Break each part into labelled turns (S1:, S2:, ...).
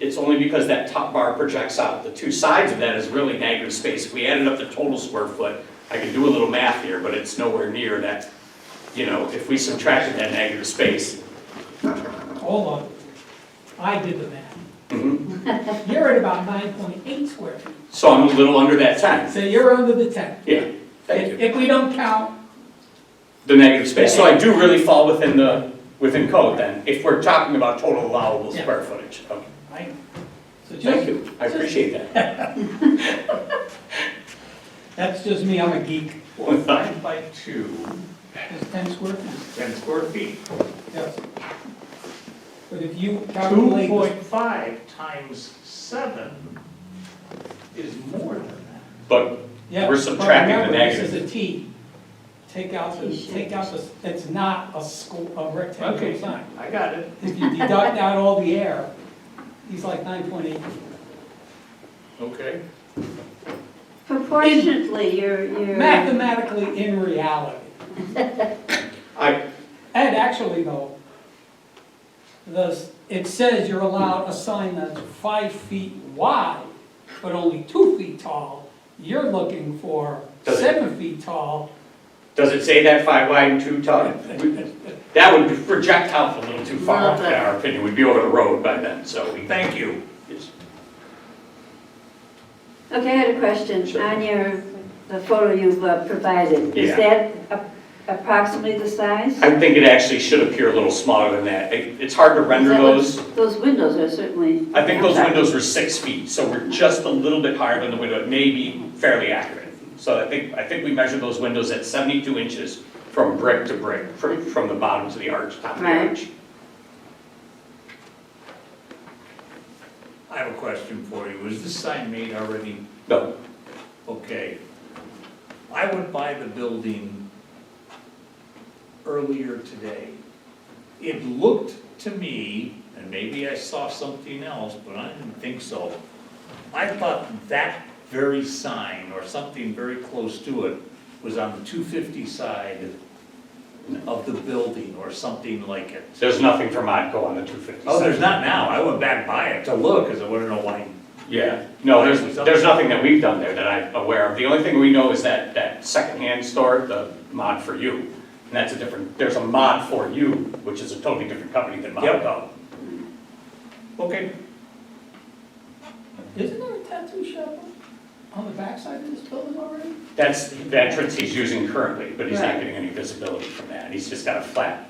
S1: It's only because that top bar projects out. The two sides of that is really negative space. If we added up the total square foot, I could do a little math here, but it's nowhere near that, you know, if we subtracted that negative space.
S2: Hold on, I did the math.
S1: Mhm.
S2: You're at about nine point eight square feet,
S1: So I'm a little under that 10.
S2: so you're under the ten.
S1: Yeah, thank you.
S2: If we don't count,
S1: The negative space. So I do really fall within the, within code then, if we're talking about total allowable
S2: Yeah.
S1: square footage. Okay.
S2: right? So just-
S1: Thank you. I appreciate that.
S2: That's just me, I'm a geek.
S3: Well, nine by two,
S2: It's ten square feet,
S3: ten square feet,
S2: yes. But if you
S3: two
S2: calculate.
S3: point five times seven is more than that.
S1: But
S2: Yeah,
S1: We're
S2: but
S1: subtracting the
S2: remember, This
S1: negative.
S2: is a T. Take out, the take out the, it's not a squ a rectangular sign.
S3: I got it.
S2: If you deduct out all the air, he's like nine point eight.
S3: Okay.
S4: Proportionately, you're, you're.
S2: Mathematically, in reality.
S1: I,
S2: And actually though, the, s- it says you're allowed a sign that's five feet wide, but only two feet tall. You're looking for
S1: Does it-
S2: seven feet tall.
S1: Does it say that five wide and two tall? That would project out a little too far,
S4: Little
S1: in
S4: bit.
S1: our opinion, we'd be over the road by then, so we thank you. Yes.
S4: Okay, I had a question.
S1: Sure.
S4: On your, the photo you've uh, provided, is
S1: Yeah.
S4: that a- approximately the size?
S1: I think it actually should appear a little smaller than that, It- it's hard to render
S4: Is that what-
S1: those.
S4: Those windows are certainly.
S1: I think
S4: I'm
S1: those
S4: sorry.
S1: windows were six feet, so we're just a little bit higher than the window, it may be fairly accurate. So I think, I think we measured those windows at seventy-two inches from brick to brick, from, from the bottom to the arch, top of the
S4: Right.
S1: arch.
S3: I have a question for you. Is this sign made already?
S1: No,
S3: Okay. I would buy the building earlier today. It looked to me, and maybe I saw something else, but I didn't think so. I thought that very sign or something very close to it was on the two fifty side of the building or something like it.
S1: there's nothing for Modco on the two fifty.
S3: Oh, there's not now. I went back by it to look, cause I wanna know why.
S1: Yeah, no, there's, there's nothing that we've done there that I'm aware of. The only thing we know is that, that secondhand store, the Mod For You. And that's a different, there's a Mod For You, which is a totally different company than
S3: Yep.
S1: Modco.
S3: Okay,
S2: Isn't there a tattoo shop on the backside of this building already?
S1: That's the entrance he's using currently, but he's not
S2: Right.
S1: getting any visibility from that. He's just got a flat,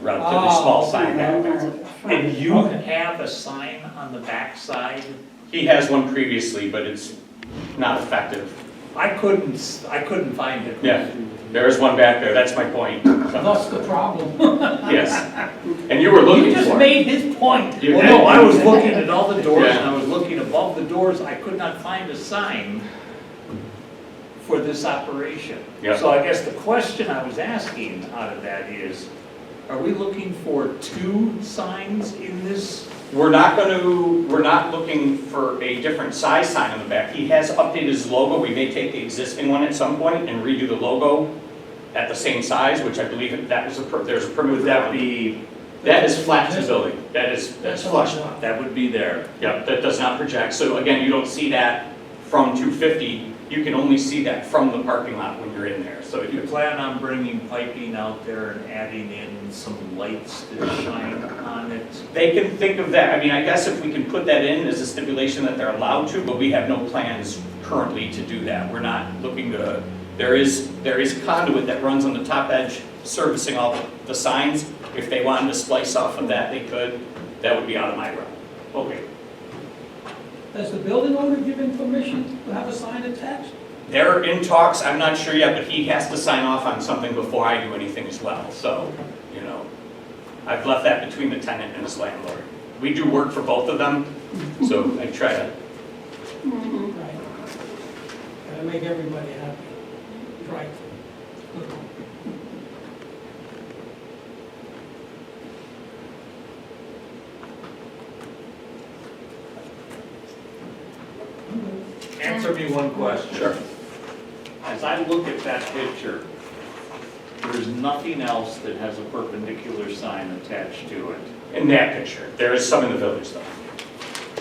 S1: relatively
S2: Oh,
S1: small sign
S4: Yeah,
S1: down
S4: that's
S1: there.
S4: up front.
S3: and you
S2: Okay.
S3: have a sign on the backside?
S1: He has one previously, but it's not effective.
S3: I couldn't, s- I couldn't find it.
S1: Yeah, there is one back there, that's my point.
S2: That's the problem.
S1: Yes. And you were
S2: You
S1: looking
S2: just
S1: for it.
S2: made his point.
S1: You
S3: Well,
S1: had-
S3: no, I was looking at all the doors and
S1: Yeah.
S3: I was looking above the doors. I could not find a sign for this operation.
S1: Yeah.
S3: So I guess the question I was asking out of that is, are we looking for two signs in this?
S1: We're not going to, we're not looking for a different size sign on the back. He has updated his logo. We may take the existing one at some point and redo the logo at the same size, which I believe that was a, per- there's a permit.
S3: Would that be,
S1: That is flat to the building. That is, that's flush.
S3: that would be there?
S1: Yep, that does not project. So again, you don't see that from 250. You can only see that from the parking lot when you're in there. So
S3: Do you
S1: you-
S3: plan on bringing piping out there and adding in some lights that shine on it?
S1: they can think of that. I mean, I guess if we can put that in as a stipulation that they're allowed to, but we have no plans currently to do that. We're not looking to, there is, there is conduit that runs on the top edge servicing all the signs. If they wanted to splice off of that, they could. That would be out of my realm. Okay.
S2: Does the building owner give him permission to have a sign attached?
S1: They're in talks, I'm not sure yet, but he has to sign off on something before I do anything as well, so, you know. I've left that between the tenant and his landlord. We do work for both of them, so I try to,
S4: Mhm.
S2: Right. Gotta make everybody happy. Right.
S3: Answer me one question.
S1: Sure.
S3: As I look at that picture, there's nothing else that has a perpendicular sign attached to it.
S1: in that picture, there is some in the village though.